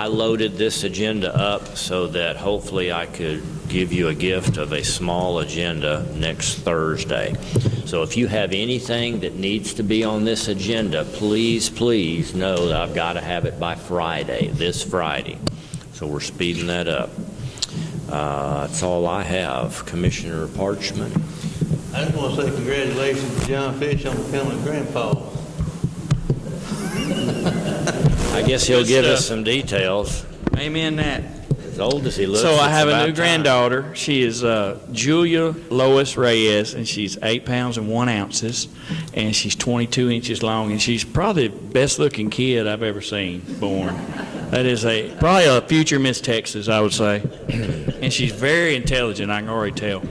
I loaded this agenda up so that hopefully I could give you a gift of a small agenda next Thursday. So if you have anything that needs to be on this agenda, please, please know that I've got to have it by Friday, this Friday. So we're speeding that up. Uh, That's all I have. Commissioner Parchman? I just want to say congratulations to John Fish on becoming grandpa. I guess he'll give us some details. Amen that. As old as he looks, So I it's have about a new time. granddaughter. She is uh, Julia Lois Reyes, and she's eight pounds and one ounces, and she's 22 inches long, and she's probably the best-looking kid I've ever seen born. That is a probably a future Miss Texas, I would say, and she's very intelligent. I can already tell. All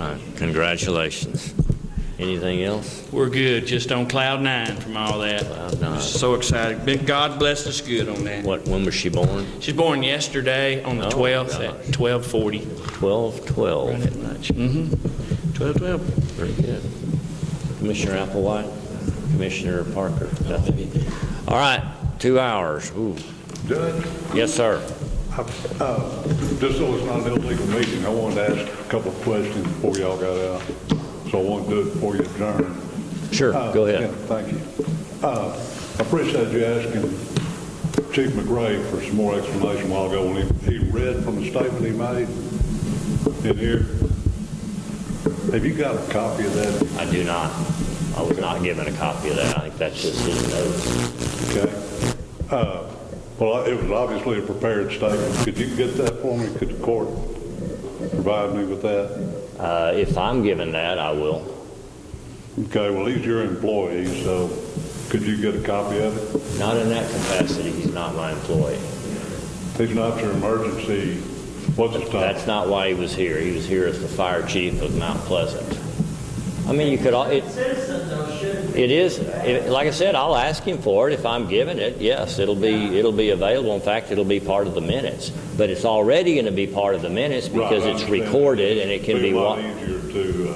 right, congratulations. Anything else? We're good, just on cloud nine from all that. Cloud nine. So excited. Been- God blessed us good on that. What, when was she born? She's born yesterday on the Oh, 12th at 12:40. 12, 12. Mm-hmm. 12:12. Very good. Commissioner Applewhite, Commissioner Parker, nothing. All right, two hours. Ooh, Judge, yes, sir. I- uh, just so it's not an illegal meeting, I wanted to ask a couple of questions before y'all got out, so I won't do it before you adjourn. Sure, Uh, go ahead. yeah, Thank you. Uh, I appreciate you asking Chief McRae for some more explanation a while ago when he he read from the statement he made in here. Have you got a copy of that? I do not, I was not given a copy of that. I think that's just his notes. Okay. Uh, Well, it was obviously a prepared statement. Could you get that for me? Could the court provide me with that? Uh, If I'm given that, I will. Okay, well, he's your employee, so could you get a copy of it? Not in that capacity, he's not my employee. He's not your emergency, what's his That's title? not why he was here. He was here as the fire chief of Mount Pleasant. I mean, you could, all it, Citizens, though, should it is, it- like I said, I'll ask him for it if I'm given it. Yes, it'll be, it'll be available. In fact, it'll be part of the minutes. But it's already going to be part of the minutes Right, I because it's understand. recorded and it can be, a lot wa- easier to, uh,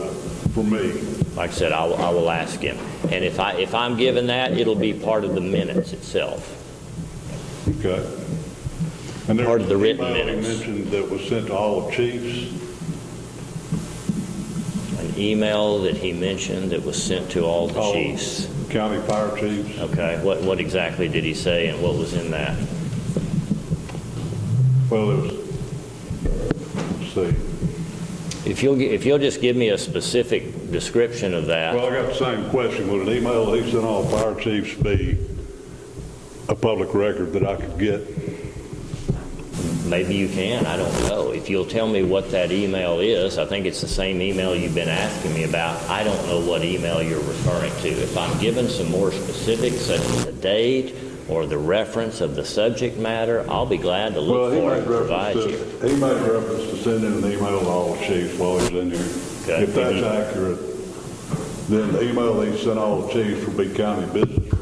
for me. like I said, I will, I will ask him. And if I, if I'm given that, it'll be part of the minutes itself. Okay. And there Part was of the an written email you minutes. mentioned that was sent to all the chiefs. An email that he mentioned that was sent to all the all chiefs. County fire chiefs. Okay, what, what exactly did he say and what was in that? Well, it was, let's see. If you'll, gi- if you'll just give me a specific description of that, Well, I got the same question. Would an email he sent all fire chiefs be a public record that I could get? maybe you can, I don't know. If you'll tell me what that email is, I think it's the same email you've been asking me about. I don't know what email you're referring to. If I'm given some more specifics, such as the date or the reference of the subject matter, I'll be glad to Well, look he for it made and provide reference you. to, he made reference to sending an email to all the chiefs while he was in Okay. Mm-hmm. here. If that's accurate, then the email he sent all the chiefs would be county business.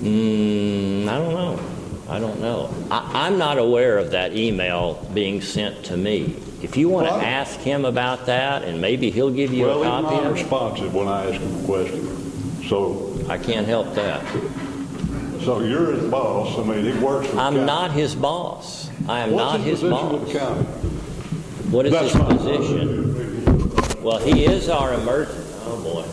Mm, I don't know. I don't know. I, I'm not aware of that email being sent to me. If you want to Well, I- ask him about that, and maybe he'll give you a Well, he's copy not of it, responsive when I ask him a question. So, I can't help that. so you're his boss, I mean, he works for the county. I'm not his boss. I am not his What's his position with boss. the county? What is That's his fine. position? Well, he is our emerg, oh boy.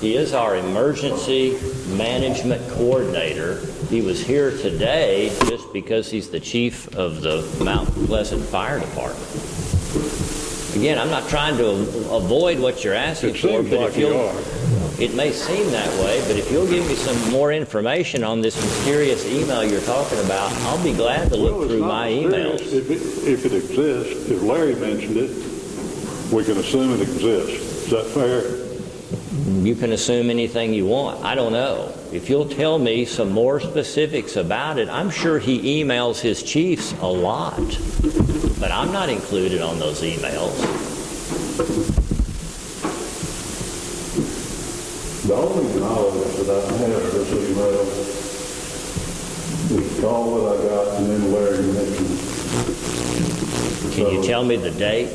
He is our emergency management coordinator. He was here today just because he's the chief of the Mount Pleasant Fire Department. Again, I'm not trying to a- avoid what you're asking It for, seems but if like you you'll, are. it may seem that way, but if you'll give me some more information on this mysterious email you're talking about, I'll be glad to Well, look it's through not my serious. emails. If it, if it exists, if Larry mentioned it, we can assume it exists. Is that fair? You can assume anything you want. I don't know. If you'll tell me some more specifics about it, I'm sure he emails his chiefs a lot, but I'm not included on those emails. The only knowledge that I have of this email was the call that I got and then Larry mentioned Can you So- tell me the date?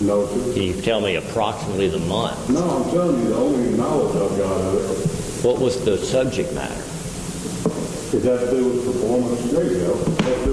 notice. Can you tell me approximately the month? No, I'm telling you, the only knowledge I've got of What was the subject matter? it, it that to do with performance? There you go. That to do with